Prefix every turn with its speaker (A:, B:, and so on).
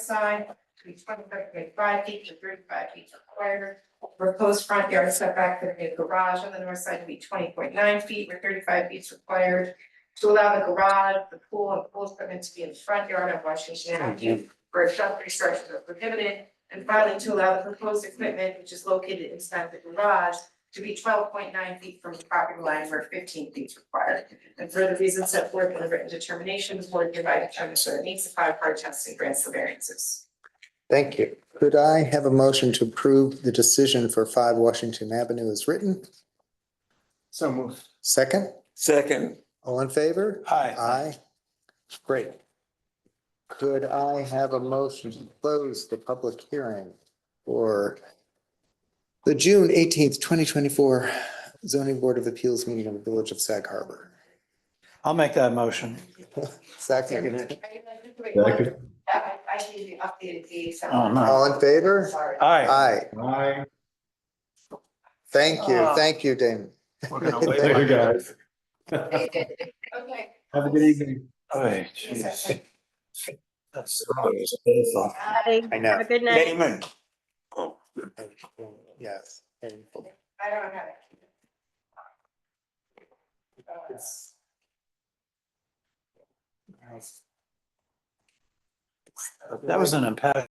A: side to be twenty-five point five feet to thirty-five feet required. Proposed front yard setback for the new garage on the north side to be twenty point nine feet where thirty-five feet is required. To allow the garage, the pool, and pool equipment to be in the front yard on Washington Avenue where shelter structures are prohibited. And finally, to allow the proposed equipment, which is located inside the garage, to be twelve point nine feet from the property line where fifteen feet is required. And for the reasons set forth in the written determination, the board hereby determines that it meets the five-part test and grants the variances.
B: Thank you. Could I have a motion to approve the decision for five Washington Avenue as written?
C: So moved.
B: Second,
D: Second,
B: all in favor?
C: Aye.
B: Aye. Great. Could I have a motion to close the public hearing for the June eighteenth, twenty twenty-four zoning board of appeals meeting of the Village of Sag Harbor?
C: I'll make that motion.
B: Second,
A: I, I need the updated dates.
C: Oh, no.
B: all in favor?
A: Sorry.
C: Aye.
B: Aye.
E: Aye.
B: Thank you. Thank you, Damon.
C: We're gonna
B: Thank
E: Later,
C: wait.
E: guys.
A: Okay.
E: Have a good evening.
C: Aye, jeez. That's-
B: I know.
F: Have a good night.
D: Damon.
B: Yes. painful.
A: I don't have it. Uh,
C: That was an impact.